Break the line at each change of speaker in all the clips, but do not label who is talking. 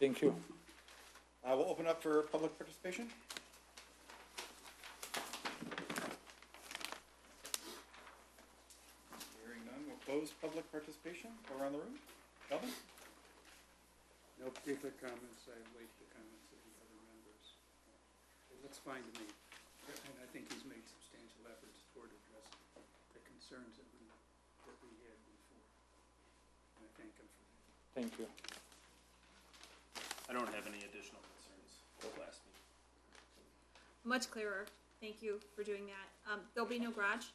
Thank you.
I will Uh, open up for public participation. Hearing none, we'll close public participation. Go around the room. Calvin?
No particular comments, I await the comments of the other members. It looks fine to me, and I think he's made substantial efforts toward addressing the concerns that we, that we had before. And I thank him for that.
Thank you.
I don't have any additional concerns for the last meeting.
Much clearer. Thank you for doing that. Um, there'll be no garage?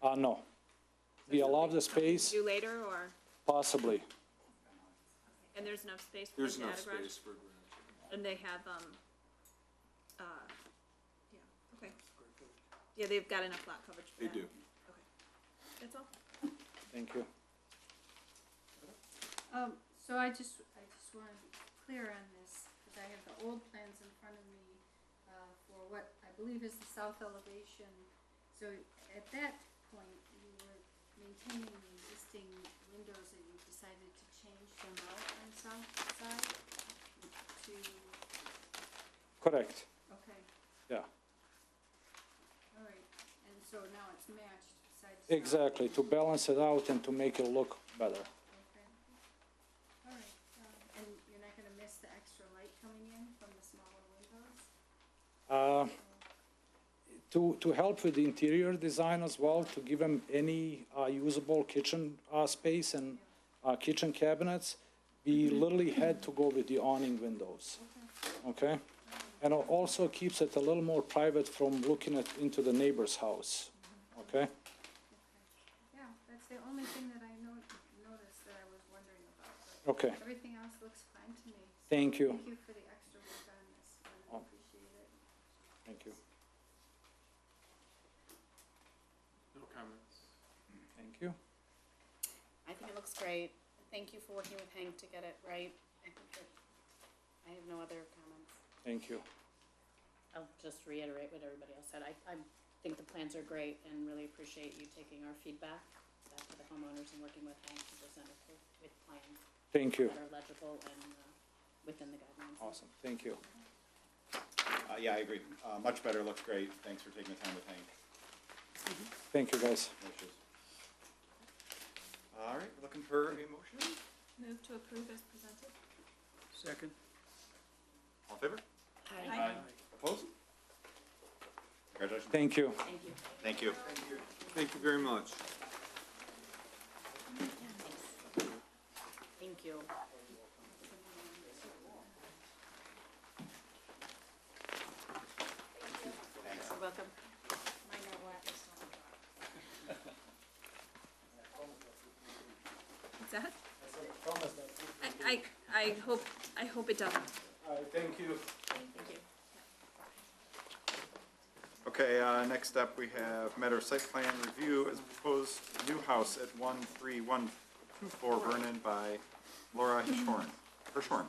Uh, no. We allow the space,
Do later or,
possibly.
and there's enough space for
There's
them to
enough
add a garage?
space for garage.
And they have, um, uh, yeah, okay. Yeah, they've got enough lot coverage for
They
that.
do.
That's all?
Thank you.
Um, so I just, I just wanna be clear on this, cause I have the old plans in front of me, uh, for what I believe is the south elevation. So at that point, you were maintaining the existing windows that you decided to change them out on south side to,
Correct.
okay,
Yeah,
alright, and so now it's matched side to side.
exactly. To balance it out and to make it look better.
Okay. Alright, um, and you're not gonna miss the extra light coming in from the smaller windows?
Uh, to, to help with the interior design as well, to give them any uh, usable kitchen uh, space and uh, kitchen cabinets, we literally had to go with the awning windows. Okay? And al- also keeps it a little more private from looking at, into the neighbor's house. Okay?
Yeah, that's the only thing that I no- noticed that I was wondering about, but
Okay.
everything else looks fine to me. So
Thank you.
Thank you for the extra work on this,
Oh.
I appreciate it.
Thank you.
No comments.
Thank you.
I think it looks great. Thank you for working with Hank to get it right. I think that, I have no other comments.
Thank you.
I'll just reiterate what everybody else said. I, I think the plans are great and really appreciate you taking our feedback back to the homeowners and working with Hank to present us with, with plans
Thank you.
that are legible and, uh, within the guidelines.
Awesome. Thank you.
Uh, yeah, I agree. Uh, much better, looks great. Thanks for taking the time with Hank.
Thank you, guys.
No issues. All right, looking for a motion?
Move to approve as presented?
Second?
All in favor?
Hi,
Opposed? Congratulations.
Thank you.
thank you.
Thank you.
Thank you very much.
Thank you. You're welcome.
What's that? I, I, I hope, I hope it doesn't.
Thank you.
Okay, uh, next up, we have matter of site plan review as proposed new house at one three one two four Vernon by Laura Hirschhorn. Hirschhorn.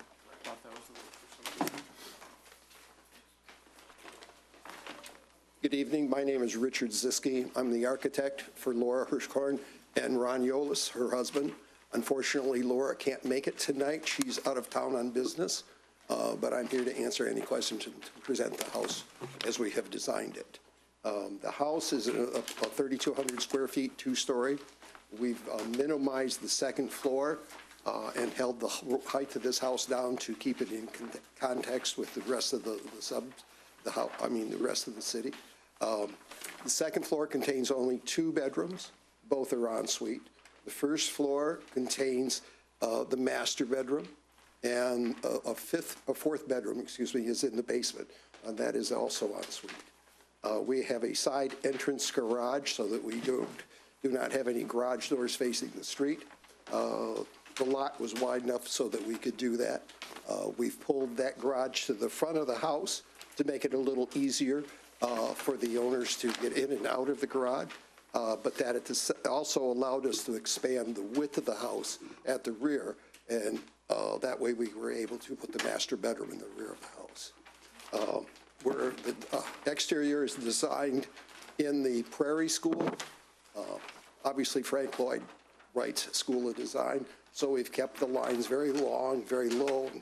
Good evening. My name is Richard Ziske. I'm the architect for Laura Hirschkorn and Ron Yolis, her husband. Unfortunately, Laura can't make it tonight. She's out of town on business, uh, but I'm here to answer any questions and to present the house as we have designed it. Um, The house is a- a- about 3,200 square feet, two-story. We've uh, minimized the second floor uh, and held the h- height of this house down to keep it in con- context with the rest of the the sub, the house, I mean, the rest of the city. Um, The second floor contains only two bedrooms, both are en suite. The first floor contains uh, the master bedroom, and a a fifth, a fourth bedroom, excuse me, is in the basement, and that is also en suite. Uh, We have a side entrance garage so that we don't, do not have any garage doors facing the street. Uh, The lot was wide enough so that we could do that. Uh, We've pulled that garage to the front of the house to make it a little easier uh, for the owners to get in and out of the garage. Uh, But that it is- also allowed us to expand the width of the house at the rear. And uh, that way, we were able to put the master bedroom in the rear of the house where the uh, exterior is designed in the Prairie School. Uh, Obviously Frank Lloyd Wright's School of Design, so we've kept the lines very long, very low, and